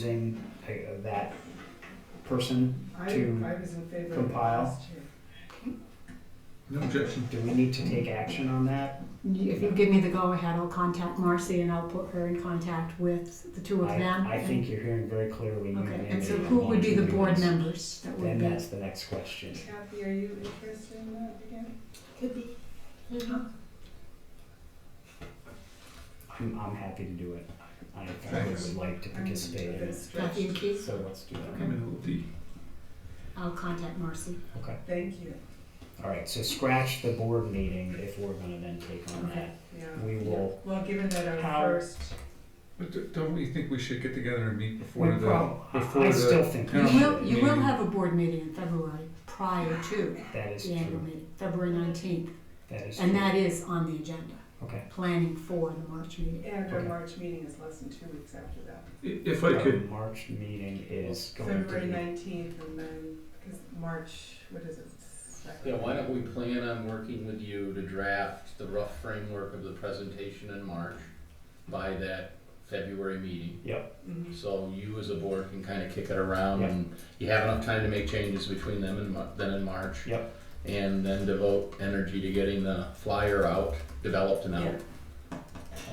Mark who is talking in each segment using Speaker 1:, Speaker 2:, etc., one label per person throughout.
Speaker 1: using uh, that person.
Speaker 2: I,
Speaker 1: to
Speaker 2: I was in favor of it
Speaker 1: compile.
Speaker 2: last year.
Speaker 3: No objection.
Speaker 1: Do we need to take action on that?
Speaker 4: If you give me the go-ahead, I'll contact Marcy and I'll put her in contact with the two of
Speaker 1: I,
Speaker 4: them.
Speaker 1: I think you're hearing very clearly. you
Speaker 4: Okay, and
Speaker 1: mandated
Speaker 4: so who would be the board
Speaker 1: volunteers.
Speaker 4: members that would
Speaker 1: Then
Speaker 4: be?
Speaker 1: that's the next question.
Speaker 2: Kathy, are you interested in that again?
Speaker 5: Could be.
Speaker 1: I'm, I'm happy to do it. I I
Speaker 3: Thanks.
Speaker 1: would like to
Speaker 2: I'm
Speaker 1: participate
Speaker 2: a
Speaker 1: in
Speaker 2: bit
Speaker 1: it.
Speaker 2: stretched.
Speaker 4: Kathy and Keith?
Speaker 1: So let's do
Speaker 3: I'm
Speaker 1: that.
Speaker 3: in a little deep.
Speaker 4: I'll contact Marcy.
Speaker 1: Okay.
Speaker 2: Thank you,
Speaker 1: All right. So scratch the board meeting if we're going to then take on
Speaker 4: Okay.
Speaker 2: yeah.
Speaker 1: that. We will.
Speaker 2: Well, given that our
Speaker 1: How-
Speaker 2: first,
Speaker 3: But d- don't we think we should get together and meet before
Speaker 1: we
Speaker 3: the,
Speaker 1: prob-
Speaker 3: before
Speaker 1: I
Speaker 3: the.
Speaker 1: still think
Speaker 4: You
Speaker 3: Yeah.
Speaker 4: will, you will
Speaker 3: Maybe.
Speaker 4: have a board meeting in February prior to
Speaker 1: that is
Speaker 4: the annual
Speaker 1: true.
Speaker 4: meeting, February nineteenth.
Speaker 1: That is
Speaker 4: And
Speaker 1: true.
Speaker 4: that is on the agenda,
Speaker 1: Okay.
Speaker 4: planning for the March meeting.
Speaker 2: and our
Speaker 1: Okay.
Speaker 2: March meeting is less than two weeks after that.
Speaker 3: I- If I could,
Speaker 1: Our March meeting is going to
Speaker 2: February
Speaker 1: be.
Speaker 2: nineteenth and then, because March, what is it? second?
Speaker 6: Yeah, why don't we plan on working with you to draft the rough framework of the presentation in March by that February meeting?
Speaker 2: Mhm.
Speaker 6: So you as a board can kind of kick it around and you have enough time to make changes between them and Mar- then in March.
Speaker 1: Yep.
Speaker 6: And then devote energy to getting the flyer out, developed and out.
Speaker 2: Yeah.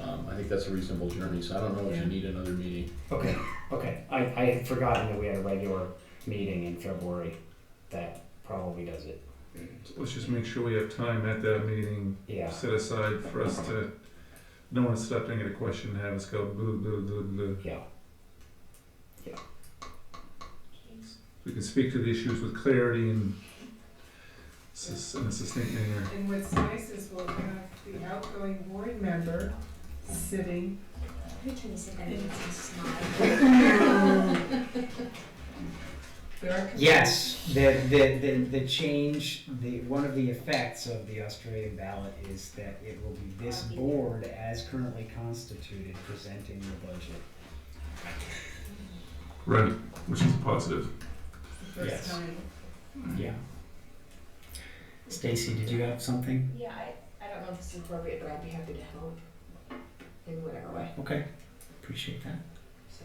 Speaker 6: Um, I think that's a reasonable journey, so I don't know if
Speaker 2: Yeah.
Speaker 6: you need another meeting.
Speaker 1: Okay, okay. I, I had forgotten that we had a regular meeting in February. That probably does it.
Speaker 3: let's just make sure we have time at that meeting
Speaker 1: Yeah.
Speaker 3: set aside for us to, no one stepping at a question and have us go boo, boo, boo, boo.
Speaker 1: Yeah.
Speaker 3: We can speak to the issues with clarity and sus- in a succinct manner.
Speaker 2: And what's nice is we'll have the outgoing board member sitting,
Speaker 5: You're trying to say that in a smile.
Speaker 2: there are.
Speaker 1: Yes, the, the, the, the change, the, one of the effects of the Australian ballot is that it will be this board as currently constituted presenting the budget.
Speaker 3: Right, which is positive.
Speaker 2: It's the first
Speaker 1: Yes.
Speaker 2: time.
Speaker 1: Yeah. Stacy, did you have something?
Speaker 5: Yeah, I, I don't know if it's appropriate, but I'd be happy to help in whatever way,
Speaker 1: Okay, appreciate that.
Speaker 5: so.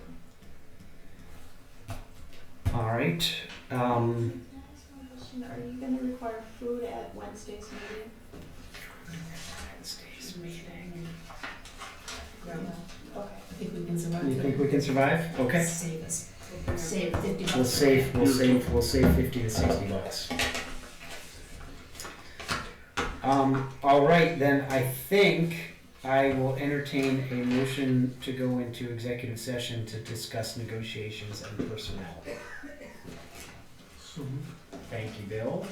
Speaker 1: All right, um,
Speaker 5: Are you gonna require food at Wednesday's meeting?
Speaker 1: Wednesday's meeting.
Speaker 2: Yeah.
Speaker 5: Okay. I think we can survive.
Speaker 1: You think we can survive? Okay.
Speaker 5: Save us, save fifty bucks.
Speaker 1: We'll save, we'll save, we'll save fifty to sixty bucks. Um, all right, then I think I will entertain a motion to go into executive session to discuss negotiations and personnel.
Speaker 3: So,
Speaker 1: Thank you, Bill.